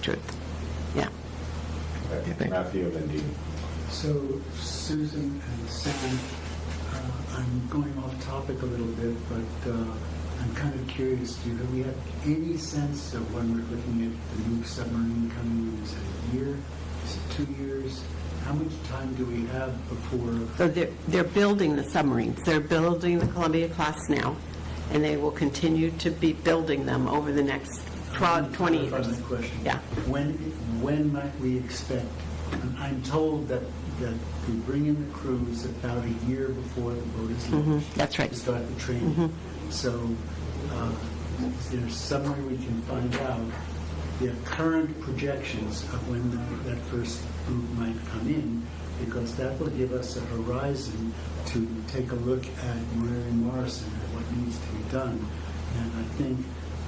truth. Yeah. Okay, Matthew and then Dean. So Susan and Sam, uh, I'm going off topic a little bit, but uh, I'm kind of curious, do we have any sense of when we're looking at the new submarine coming in? Is it a year? Is it two years? How much time do we have before? uh, So they're, they're building the submarines. They're building the Columbia-class now, and they will continue to be building them over the next 12, 20 Clarify years. my question. Yeah. When, when might we expect, I'm- I'm told that, that we bring in the crews about a year before the boat is Mhm, launched. That's right. Mm-hmm. to start the training. So uh, is there some way we can find out the current projections of when that- that first group might come in? Because that will give us a horizon to take a look at Mary Morrison and what needs to be done. And I think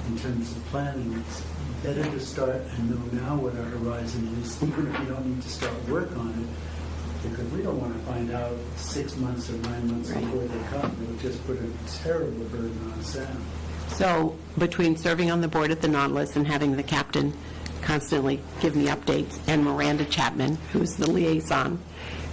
in terms of planning, it's better to start and know now what our horizon is, even if we don't need to start work on it, because we don't want to find out six months or nine months Right. before they come. It would just put a terrible burden on Sam. So between serving on the board at the Nautilus and having the captain constantly give me updates, and Miranda Chapman, who's the liaison,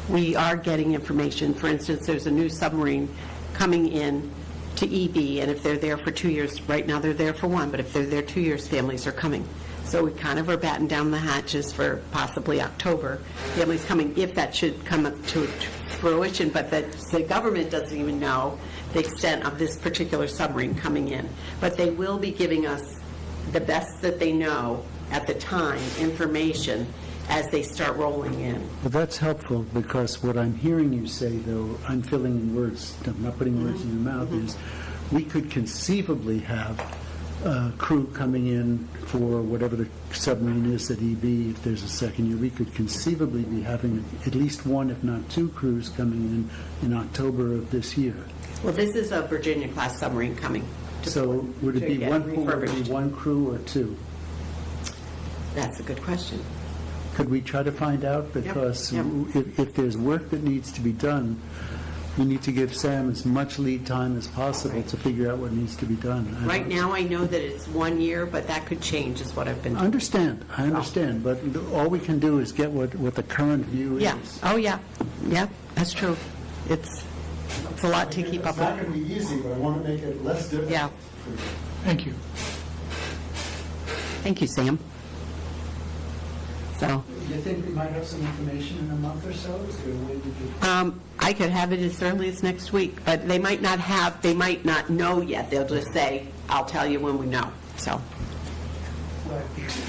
we are getting information. For instance, there's a new submarine coming in to EB, and if they're there for two years, right now they're there for one, but if they're there two years, families are coming. So we kind of are batting down the hatches for possibly October. Families coming, if that should come up to fruition, but that the government doesn't even know the extent of this particular submarine coming in. But they will be giving us the best that they know at the time, information, as they start rolling in. Well, that's helpful, because what I'm hearing you say, though, I'm filling in words, I'm not putting words in your mouth, is we could conceivably have a crew coming in for whatever the submarine is at EB, if there's a second year, we could conceivably be having at least one, if not two crews coming in in October of this year. Well, this is a Virginia-class submarine coming. to- So would to it be get one, would it refurbished. be one crew or two? That's a good question. Could we try to find out? Because yep. if, if there's work that needs to be done, we need to give Sam as much lead time as possible Right. to figure out what needs to be done. I Right don't- now, I know that it's one year, but that could change, is what I've been I understand, I understand, but all we can do is get what, what the current view Yeah, is. oh, yeah, yeah, that's true. It's, it's a lot to keep up It's not with. going to be easy, but I want to make it less difficult. Yeah. Thank you. Thank you, Sam. So, you think we might have some information in a month or so? um, I could have it as early as next week, but they might not have, they might not know yet. They'll just say, I'll tell you when we know, so.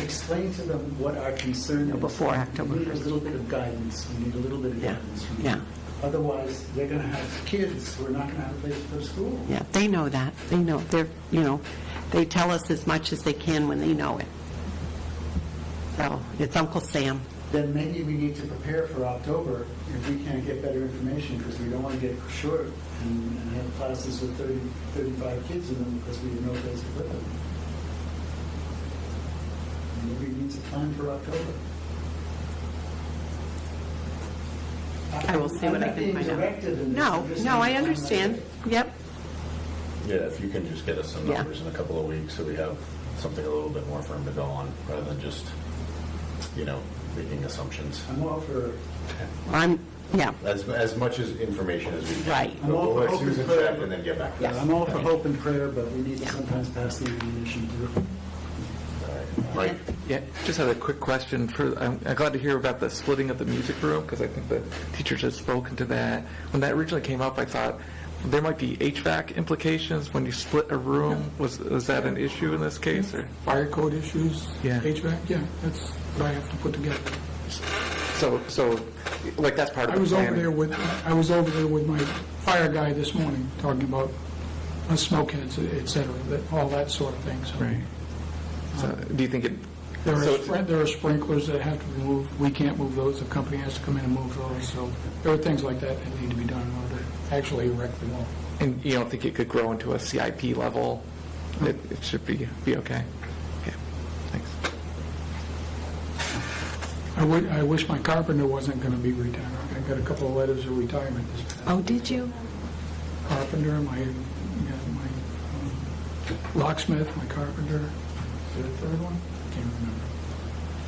Explain to them what our concern is. Before October We need a 1st. little bit of guidance, we need a little bit of Yeah, guidance. from yeah. them. Otherwise, they're going to have kids who are not going to have a place to go to school. Yeah, they know that. They know, they're, you know, they tell us as much as they can when they know it. So, it's Uncle Sam. then maybe we need to prepare for October if we can't get better information, because we don't want to get short and and have classes with 30, 35 kids in them because we have no place to put them. Maybe we need to plan for October. I will see what I can find out. No, no, I understand. Yep, Yeah, if you can just get us some Yeah. numbers in a couple of weeks, so we have something a little bit more firm to go on, rather than just, you know, making assumptions. I'm all for, I'm, yeah, As, as much as information as we can. Right. But We'll I'm let all for Susan open check prayer. and then get back to us. I'm all for hope and prayer, but we need to sometimes pass the ammunition through. Mike? Yeah, just had a quick question for, I'm I'm glad to hear about the splitting of the music room, because I think the teachers had spoken to that. When that originally came up, I thought there might be HVAC implications when you split a room. Was, was that an issue in this case, or? fire code issues, Yeah. HVAC, yeah, that's what I have to put together. So, so, like, that's part of I the was over planning? there with, I was over there with my fire guy this morning, talking about uh, smokeheads, et cetera, that- all that sort of thing, so. Right. So, do you think it, There So are, it's- sprin- there are sprinklers that have to be moved, we can't move those, the company has to come in and move those, so there are things like that that need to be done in order to actually erect the wall. and you don't think it could grow into a CIP level? It, it should be, be okay? Okay, thanks. I would, I wish my carpenter wasn't gonna be retired, I got a couple of letters of retirement this past Oh, did you? carpenter, my, you know, my um, locksmith, my carpenter, is there a third one? Can't remember.